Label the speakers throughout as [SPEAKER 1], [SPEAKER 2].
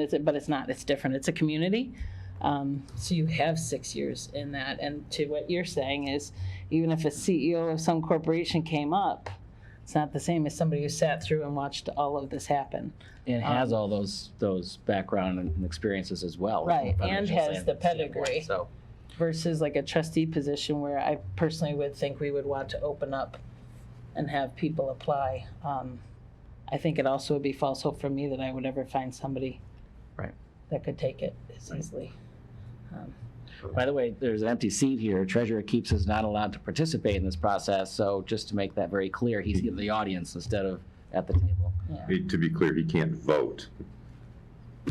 [SPEAKER 1] It's, but it's not, it's different. It's a community. Um, so you have six years in that. And to what you're saying is, even if a CEO of some corporation came up, it's not the same as somebody who sat through and watched all of this happen.
[SPEAKER 2] And
[SPEAKER 1] Um,
[SPEAKER 2] has all those, those background and experiences as well. from a
[SPEAKER 1] Right, and
[SPEAKER 2] financial
[SPEAKER 1] has
[SPEAKER 2] stand-
[SPEAKER 1] the pedigree.
[SPEAKER 2] standpoint, So,
[SPEAKER 1] versus like a trustee position where I personally would think we would want to open up and have people apply. Um, I think it also would be false hope for me that I would ever find somebody
[SPEAKER 2] Right.
[SPEAKER 1] that could take it as easily. Um,
[SPEAKER 2] by the way, there's an empty seat here. Treasurer Keeps is not allowed to participate in this process, so just to make that very clear, he's in the audience instead of at the table.
[SPEAKER 3] He- To be clear, he can't vote.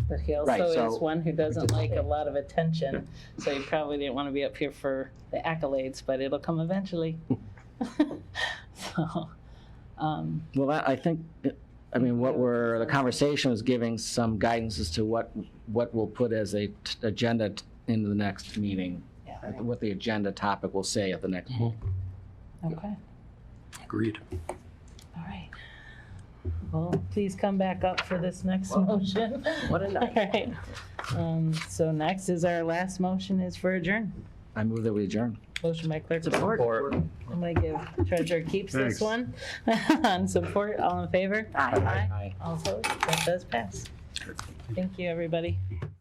[SPEAKER 1] But he
[SPEAKER 2] Right,
[SPEAKER 1] also is
[SPEAKER 2] so-
[SPEAKER 1] one who doesn't like a lot of attention, so he probably didn't want to be up here for the accolades, but it'll come eventually. So, um,
[SPEAKER 2] Well, that- I think, I mean, what we're, the conversation was giving some guidance as to what, what we'll put as a t- agenda t- into the next meeting,
[SPEAKER 1] yeah,
[SPEAKER 2] what the agenda topic will say at the next meeting.
[SPEAKER 1] okay.
[SPEAKER 4] Agreed.
[SPEAKER 1] All right. Well, please come back up for this next motion. What a night. Um, so next is our last motion is for adjourn.
[SPEAKER 2] I move that we adjourn.
[SPEAKER 1] Motion by clerk support. I'm gonna give treasurer keeps this
[SPEAKER 4] Thanks.
[SPEAKER 1] one on support. All in favor? Aye.
[SPEAKER 2] Aye.
[SPEAKER 1] All opposed? That does pass. Thank you, everybody.